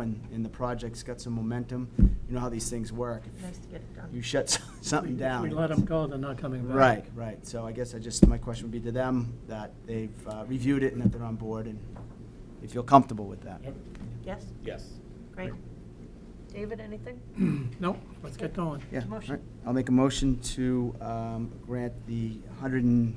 and, and the project's got some momentum, you know how these things work. If Nice to get it done. You shut s- something down. We let them go, they're not coming back. Right, right. So I guess I just, my question would be to them, that they've uh, reviewed it and that they're on board and they feel comfortable with that. Yep. Yes, Yes. great. David, anything? Nope, let's get going. Yeah, all Motion. right. I'll make a motion to um, grant the 100 and,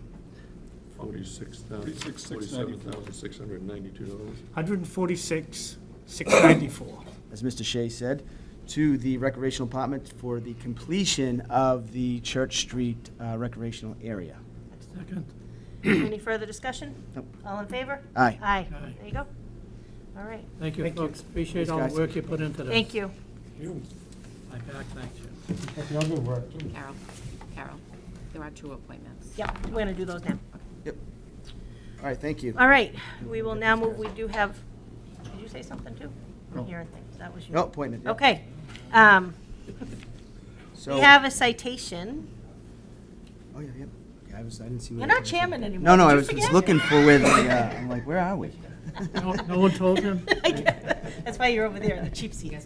Forty-six thousand, Forty-six, six forty-seven ninety-four. thousand, six hundred and ninety-two dollars. Hundred and forty-six, six ninety-four. as Mr. Shea said, to the recreational department for the completion of the Church Street uh, recreational area. Second. Any further discussion? Nope. All in favor? Aye. Aye. Aye. There you go. All right. Thank you, Thank you. folks. Appreciate Thanks, all guys. the work you put into this. Thank you, You, My back, thank you. the other work too. Carol, Carol, there are two appointments. Yeah, we're going to do those now. Yep. All right, thank you. All right, we will now move, we do have, did you say something too? I'm hearing things, that was you. No, Oh, appointment. yeah. Okay. Um, So- We have a citation. Oh, yeah, yeah. Yeah, I was, I didn't see. You're where- not chairman No, anymore. no, Did I you was just forget? looking for where the, uh, I'm like, where are we? No- no one told him? That's why you're over there in the cheap seat.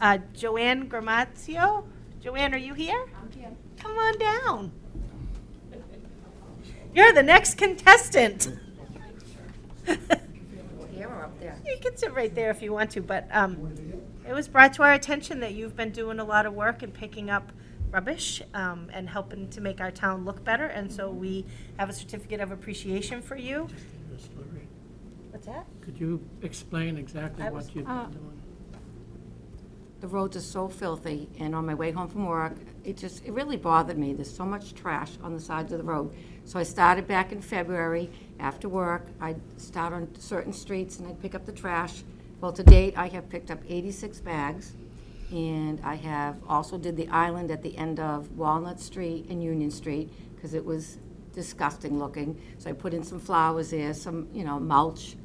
Uh, Joanne Gramazio? Joanne, are you here? I'm here. Come on down. You're the next contestant. Here or up there? You can sit right there if you want to, but um, it was brought to our attention that you've been doing a lot of work and picking up rubbish um, and helping to make our town look better, and so we have a certificate of appreciation for you. What's that? Could you explain exactly I what was- you've Uh, been doing? The roads are so filthy, and on my way home from work, it just, it really bothered me. There's so much trash on the sides of the road. So I started back in February, after work, I'd start on certain streets and I'd pick up the trash. Well, to date, I have picked up 86 bags, and I have also did the island at the end of Walnut Street and Union Street, because it was disgusting looking. So I put in some flowers there, some, you know, mulch,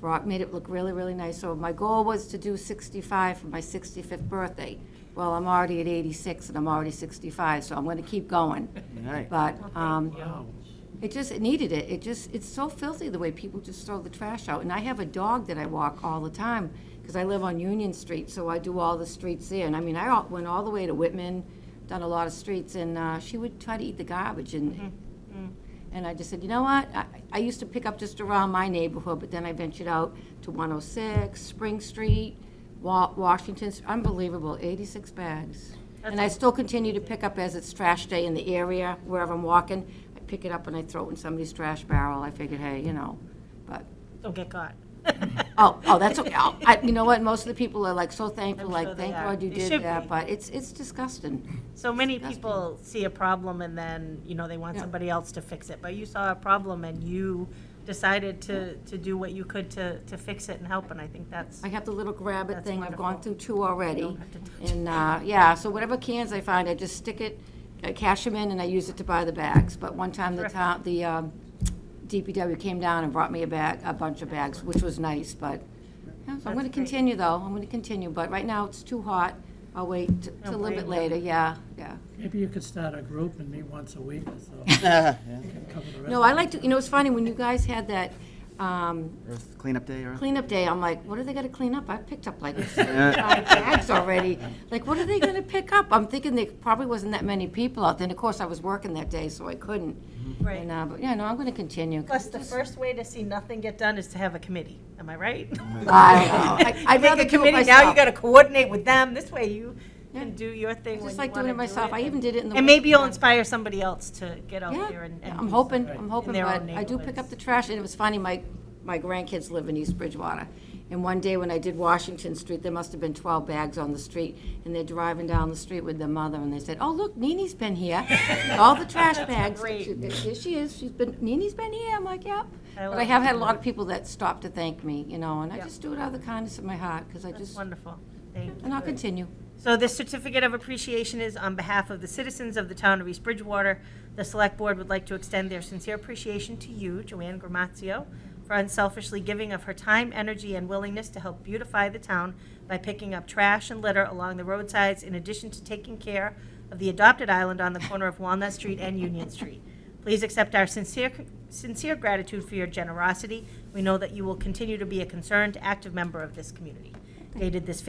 brought, made it look really, really nice. So my goal was to do 65 for my 65th birthday. Well, I'm already at 86 and I'm already 65, so I'm going to keep going. Right. But um, Wow. it just, it needed it. It just, it's so filthy the way people just throw the trash out. And I have a dog that I walk all the time because I live on Union Street, so I do all the streets there. And I mean, I all- went all the way to Whitman, done a lot of streets, and uh, she would try to eat the garbage. And, and I just said, you know what? I, I used to pick up just around my neighborhood, but then I ventured out to 106, Spring Street, Wa- Washington. Street. Unbelievable, 86 bags. And I still continue to pick up as it's trash day in the area, wherever I'm walking. I pick it up and I throw it in somebody's trash barrel. I figured, hey, you know, but, Don't get caught. oh, oh, that's okay. Oh, I, you know what? Most of the people are like so thankful, I'm sure like, they thank are. God you They should did be. that, but it's, it's disgusting. So many Disgusting. people see a problem and then, you know, they want Yeah. somebody else to fix it, but you saw a problem and you decided to, to do what you could to, to fix it and help, and I think that's, I have the little grab it That's thing, I've gone wonderful. through two already. don't have to touch And, uh, yeah, so whatever cans I find, I just stick it, I cash them in, and I use it to buy the bags. But one time, the Terrific. town, the um, DPW came down and brought me a bag, a bunch of bags, which was nice, but, yeah, so I'm That's gonna great. continue, though, I'm gonna continue, but right now, it's too hot, I'll wait t- till a little bit blame you. later, yeah, yeah. Maybe you could start a group and meet once a week or so. Yeah. Cover the rest No, of I like to, you know, it's funny, when you guys had that um, Earth cleanup day, Earth? cleanup day, I'm like, what are they gonna clean up? I picked up like five bags already. Like, what are they gonna pick up? I'm thinking there probably wasn't that many people out there. And of course, I was working that day, so I couldn't. And, right. uh, but yeah, no, I'm gonna continue. Mm-hmm. Plus, 'cause it the just- first way to see nothing get done is to have a committee, am I right? I don't know. I- I'd Make rather a do it committee, Now you myself. gotta coordinate with them, this way you Yeah. can do your thing I when just you like doing wanna it do myself. I even did it in the. And maybe you'll winter. inspire somebody else to get out Yeah, there and. yeah, and I'm do hoping, something I'm in hoping, their but own I do pick neighborhoods. up the trash, and it was funny, my, my grandkids live in East Bridgewater. And one day when I did Washington Street, there must have been twelve bags on the street, and they're driving down the street with their mother, and they said, oh, look, Nini's been here. All the trash bags. great. She- Here she is, she's been, Nini's been here, I'm like, yep. I But I love have had a lot of people that stop to thank me, you know, and I Yep. just do it out of the kindness of my heart, because I That's just, wonderful, thank you. and I'll continue. So this certificate of appreciation is on behalf of the citizens of the town of East Bridgewater. The Select Board would like to extend their sincere appreciation to you, Joanne Gramazio, for unselfishly giving of her time, energy, and willingness to help beautify the town by picking up trash and litter along the roadsides in addition to taking care of the adopted island on the corner of Walnut Street and Union Street. Please accept our sincere, sincere gratitude for your generosity. We know that you will continue to be a concerned, active member of this community. dated this